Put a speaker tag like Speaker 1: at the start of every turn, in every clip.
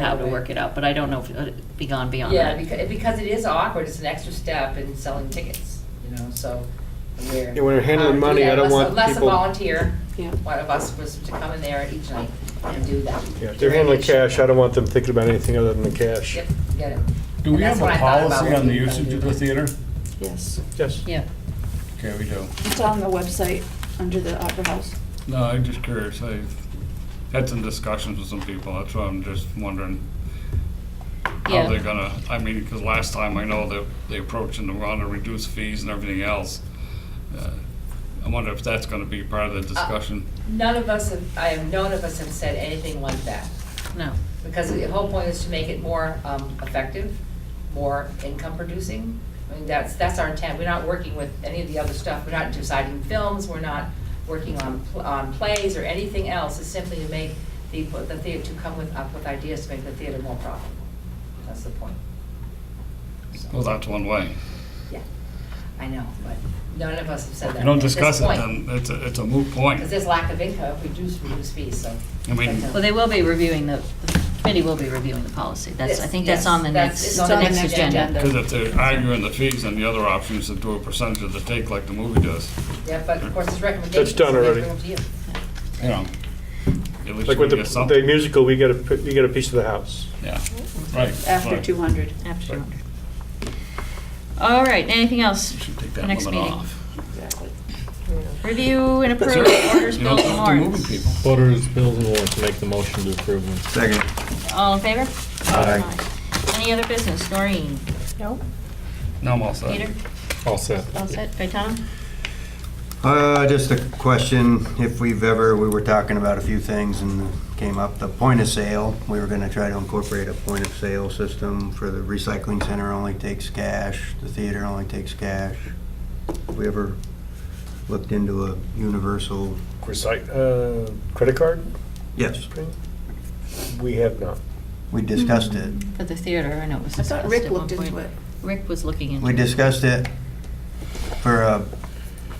Speaker 1: how to work it out, but I don't know if it'd be gone beyond
Speaker 2: Yeah,
Speaker 1: that.
Speaker 2: because, because it is awkward, it's an extra step in selling tickets, you know, so we're.
Speaker 3: And when we're handling
Speaker 2: um,
Speaker 3: money,
Speaker 2: yeah,
Speaker 3: I don't
Speaker 2: unless-
Speaker 3: want
Speaker 2: Unless a
Speaker 3: people-
Speaker 2: volunteer,
Speaker 4: Yeah.
Speaker 2: one of us was to come in there each night and do that.
Speaker 3: Yeah, if they're handling cash, I don't want them thinking about anything other than the cash.
Speaker 2: Yep, get it.
Speaker 5: Do we
Speaker 2: And that's
Speaker 5: have a
Speaker 2: what I thought about
Speaker 5: policy
Speaker 2: what
Speaker 5: on the
Speaker 2: we were
Speaker 5: usage
Speaker 2: gonna
Speaker 5: of
Speaker 2: do.
Speaker 5: the theater?
Speaker 4: Yes,
Speaker 3: Yes.
Speaker 1: Yeah,
Speaker 5: Okay, we do.
Speaker 4: it's on the website under the Opera House.
Speaker 5: No, I'm just curious. I've had some discussions with some people, that's why I'm just wondering how they're
Speaker 1: yeah,
Speaker 5: gonna, I mean, because last time I know that they approached and wanted to reduce fees and everything else. Uh, I wonder if that's gonna be part of
Speaker 2: Uh,
Speaker 5: the discussion.
Speaker 2: None of us, have I have, none of us have said anything like that,
Speaker 1: no,
Speaker 2: because the whole point is to make it more um, effective, more income producing. I mean, that's, that's our intent, we're not working with any of the other stuff, we're not deciding films, we're not working on, pl- on plays or anything else, it's simply to make the, the theater, to come with, up with ideas to make the theater more profitable. That's the point. So,
Speaker 5: Well, that's one way.
Speaker 2: Yeah, I know, but none of us have said that.
Speaker 5: If you don't
Speaker 2: at this
Speaker 5: discuss it, um,
Speaker 2: point.
Speaker 5: then it's a, it's a moot point.
Speaker 2: Because there's lack of income, we do reduce fees, so.
Speaker 5: I mean-
Speaker 1: well, they will be reviewing the, the committee will be reviewing the policy, that's, I
Speaker 2: Yes,
Speaker 1: think that's
Speaker 2: yes,
Speaker 1: on the
Speaker 2: that's-
Speaker 1: next,
Speaker 2: it's
Speaker 1: the next agenda.
Speaker 5: Because if they're arguing the fees, then the other option is to do a percentage of the take like the movie does,
Speaker 2: Yeah, but of course, it's recommendations.
Speaker 3: That's done
Speaker 2: so they
Speaker 3: already.
Speaker 2: bring them to you.
Speaker 5: you know. At least
Speaker 3: Like with the,
Speaker 5: we get
Speaker 3: the
Speaker 5: something.
Speaker 3: musical, we get a, p- you get a piece of the house.
Speaker 5: Yeah, right.
Speaker 4: After
Speaker 5: right.
Speaker 4: 200.
Speaker 1: After 200. All right, anything else?
Speaker 5: Should take
Speaker 1: for
Speaker 5: that
Speaker 1: next
Speaker 5: limit
Speaker 1: meeting?
Speaker 5: off.
Speaker 1: Review and approve
Speaker 5: Sure.
Speaker 1: orders,
Speaker 5: You don't
Speaker 1: bills, and
Speaker 5: have to move it,
Speaker 1: warrants.
Speaker 5: people.
Speaker 6: Orders, bills, and warrants, make the motion to approve them.
Speaker 7: Second.
Speaker 1: All in favor?
Speaker 7: Aye.
Speaker 1: Any other business? Noreen?
Speaker 4: No.
Speaker 5: No, I'm all set.
Speaker 1: Peter?
Speaker 6: All set.
Speaker 1: All set? Gaetano?
Speaker 7: Uh, just a question, if we've ever, we were talking about a few things and came up, the point of sale, we were gonna try to incorporate a point of sale system for the recycling center only takes cash, the theater only takes cash. Have we ever looked into a universal?
Speaker 3: Recite, uh, credit card?
Speaker 7: Yes.
Speaker 3: We have not.
Speaker 7: We discussed it.
Speaker 1: For the theater, I know it was
Speaker 4: I
Speaker 1: discussed
Speaker 4: thought
Speaker 1: at
Speaker 4: Rick
Speaker 1: one
Speaker 4: looked into
Speaker 1: point.
Speaker 4: it.
Speaker 1: Rick was looking into it.
Speaker 7: We discussed it for uh,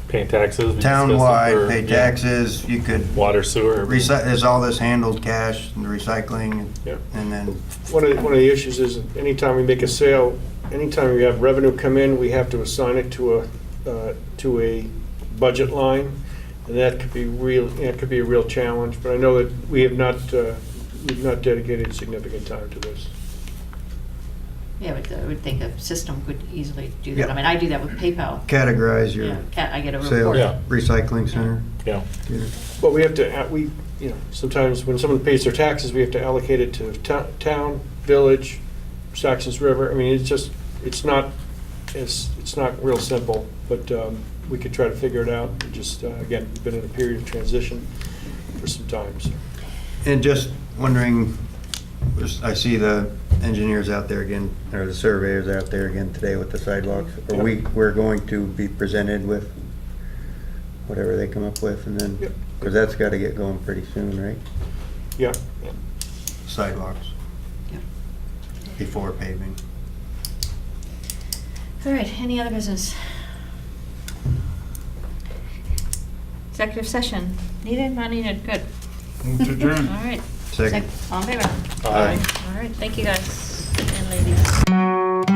Speaker 6: Paying taxes. we discussed it
Speaker 7: townwide,
Speaker 6: for-
Speaker 7: pay
Speaker 6: yeah,
Speaker 7: taxes, you could,
Speaker 6: Water, sewer. everything.
Speaker 7: recy- is all this handled cash and recycling?
Speaker 3: Yeah.
Speaker 7: And then
Speaker 3: One of, the- one of the issues is anytime we make a sale, anytime we have revenue come in, we have to assign it to a, uh, to a budget line. And that could be real, that could be a real challenge, but I know that we have not, uh, we've not dedicated significant time to this.
Speaker 1: Yeah, but uh, I would think a system could easily do that.
Speaker 7: Yeah.
Speaker 1: I mean, I do that with PayPal.
Speaker 7: categorize your.
Speaker 1: Yeah, ca- I get a
Speaker 7: Sales,
Speaker 1: report.
Speaker 6: Yeah.
Speaker 7: recycling center.
Speaker 6: Yeah.
Speaker 3: But we have to, uh, we, you know, sometimes when someone pays their taxes, we have to allocate it to to- town, village, Saxons River. I mean, it's just, it's not, it's, it's not real simple, but um, we could try to figure it out. We Just, uh, again, we've been in a period of transition for some time, so.
Speaker 7: And just wondering, just- I see the engineers out there again, or the surveyors out there again today with the sidewalks. Are we, we're going to be presented with whatever they come up with and then,
Speaker 3: Yep.
Speaker 7: because that's got to get going pretty soon, right?
Speaker 3: Yeah,
Speaker 7: Sidewalks.
Speaker 1: Yep.
Speaker 7: Before paving.
Speaker 1: All right, any other business? Executive session, needed, not needed, good.
Speaker 5: Move to
Speaker 1: All
Speaker 5: adjourn.
Speaker 1: right.
Speaker 7: Second.
Speaker 1: Sec- All in favor?
Speaker 7: Aye.
Speaker 1: All right, thank you guys and ladies.